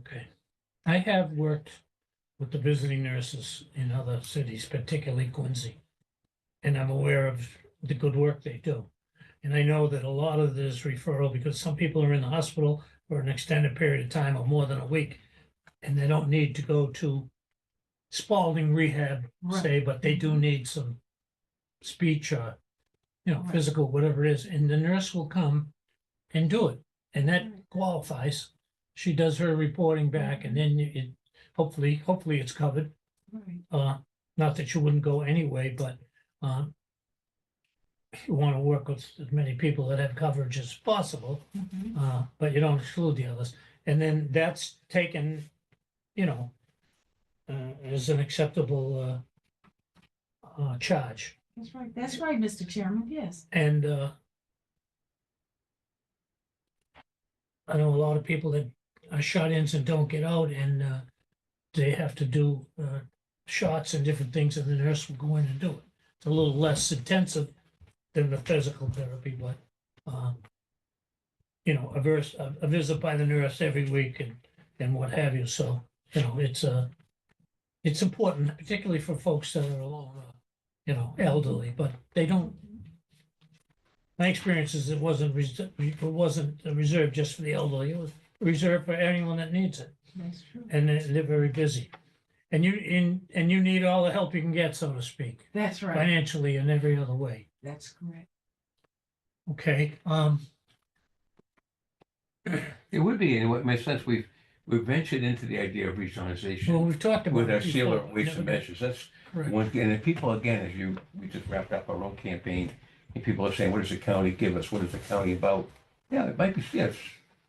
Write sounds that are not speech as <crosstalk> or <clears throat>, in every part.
Okay. I have worked with the visiting nurses in other cities, particularly Quincy. And I'm aware of the good work they do. And I know that a lot of this referral, because some people are in the hospital for an extended period of time or more than a week. And they don't need to go to Spalding rehab, Right. say, but they do need some speech or, you know, Right. physical, whatever it is, and the nurse will come and do it. And that qualifies. She does her reporting back and then it, hopefully, hopefully it's covered. Right. Uh, not that you wouldn't go anyway, but, uh, you want to work with as many people that have coverage as possible, Mhm. uh, but you don't exclude the others. And then that's taken, you know, uh, as an acceptable, uh, uh, charge. That's right, that's right, Mr. Chairman, yes. And uh, I know a lot of people that are shut-ins and don't get out and uh, they have to do uh, shots and different things and the nurse will go in and do it. It's a little less intensive than the physical therapy, but um, you know, a vers- a a visit by the nurse every week and, and what have you. So, you know, it's uh it's important, particularly for folks that are alone, uh, you know, elderly, but they Oh. don't my experience is it wasn't, res- it wasn't reserved just for the elderly, it was reserved for anyone that needs it, That's true. and they're, they're very busy. And you, in, and you need all the help you can get, so to speak, That's right, financially and every other way, that's correct. okay? Um, It would be, in what makes sense, we've, we've ventured into the idea of regionalization well, we've talked about. with our it sealer before. weights and measures, that's Correct. one, thing. and the people, again, as you, we just wrapped up our own campaign, and people are saying, what does the county give us, what is the county about? Yeah, it might be, yes,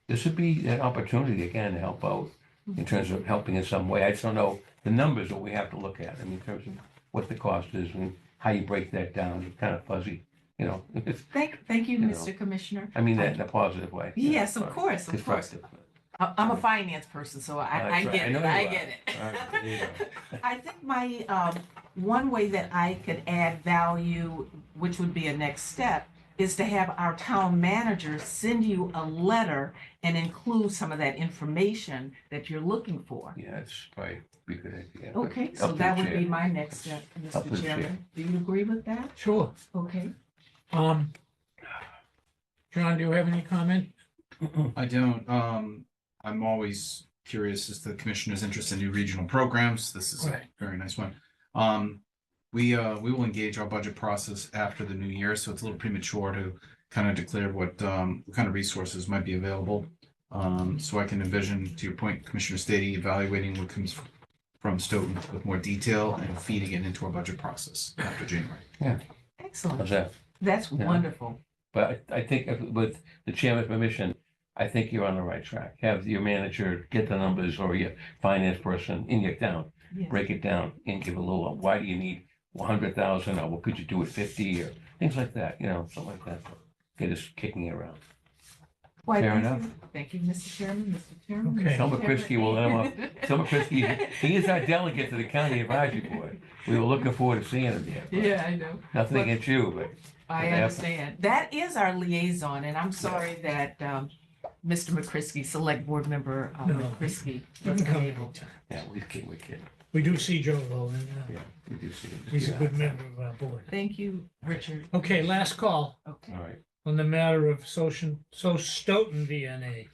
this would be an opportunity, again, to help out, in terms of helping in some way, I just don't know, the numbers that we have to look at, I mean, in terms of what the cost is and how you break that down, it's kind of fuzzy, you know, <laughs> Thank, thank you, You know. Mr. Commissioner. I mean that in a positive way. you know, Yes, of course, of course. Constructive. I- I'm a finance person, so That's I, I right. I get know it, you I are. get All right, there you it. go. <laughs> I think my, um, one way that I could add value, which would be a next step, is to have our town manager send you a letter and include some of that information that you're looking for. Yeah, it's probably be a good idea. Okay, Up so to that the would chair. be my next step, Up to the Mr. chair. Chairman. Do you agree with that? Sure, Okay. um, John, do you have any comment? <clears throat> I don't. Um, I'm always curious as to the commissioner's interest in new regional programs. This is a Right. very nice one. Um, we, uh, we will engage our budget process after the new year, so it's a little premature to kind of declare what, um, what kind of resources might be available. Um, so I can envision, to your point, Commissioner Stady, evaluating what comes from Stoughton with more detail and feeding it into our budget process after January. Excellent. How's that? That's Yeah. wonderful. But I I think if- with the chairman's permission, I think you're on the right track. Have your manager get the numbers or your finance person in your town, Yes. break it down and give a little, why do you need one hundred thousand or what could you do with fifty or things like that, you know, something like that. Get us kicking it around. Why, Fair thank enough. you. Thank you, Mr. Chairman, Mr. Chairman. Okay. Mr. Selma Chairman. Krisky <laughs> will have Tom Christie, he is our delegate to the county advisory board. We were looking forward to seeing him there. <laughs> but Yeah, I know. Nothing against you, but I Yeah. understand. That is our liaison, and I'm sorry that um, Mr. McCrisky, Select Board Member uh, No. McCrisky, was unable. yeah, we kid, we kid. We do see Joe though, and uh, Yeah. We do see him. he's a Yeah. good member of our board. Thank you, Richard. Okay, last call. Okay. All right. on the matter of social, so Stoughton VNA.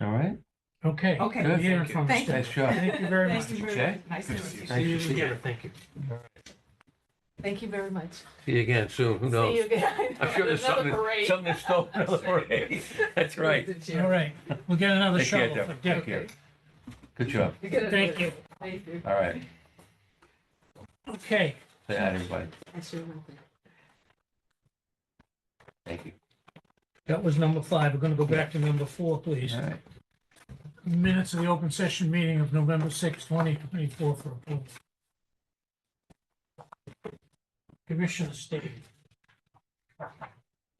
All right. Okay. Okay. good Thank hearing you. from Thank you. Stoughton. Nice job. Thank you very much. Thank you very Okay. much. Nice to Good to meet see you. you. Nice to see you. thank you. Thank you very much. See you again soon. Who See you <laughs> knows? again. I'm sure there's Another something, parade. something in store <laughs> for another parade. That's right. Mr. All Chairman. right, we'll get another Take care, shovel Deborah. for Take Dick. care. Good job. You're gonna do Thank it. you. Thank you. All right. Okay, Say hi, everybody. I sure will be. Thank you. that was number five. We're gonna go back to number four, please. All right. Minutes of the open session meeting of November sixth, twenty twenty-four for approval. Commissioner State.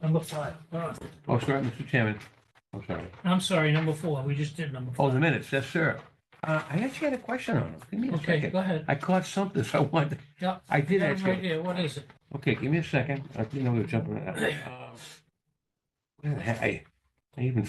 Number five. Uh, Oh, sorry, Mr. Chairman. I'm sorry. I'm sorry, number four. We just did number Oh, four. the minutes. Yes, sir. Uh, I actually had a question on them. Give me a Okay, second. go ahead. I caught something, so I wanted, Yeah. I did Yeah, actually. Right there. What is it? Um, Okay, give me a second. I think I'm gonna jump around. I I even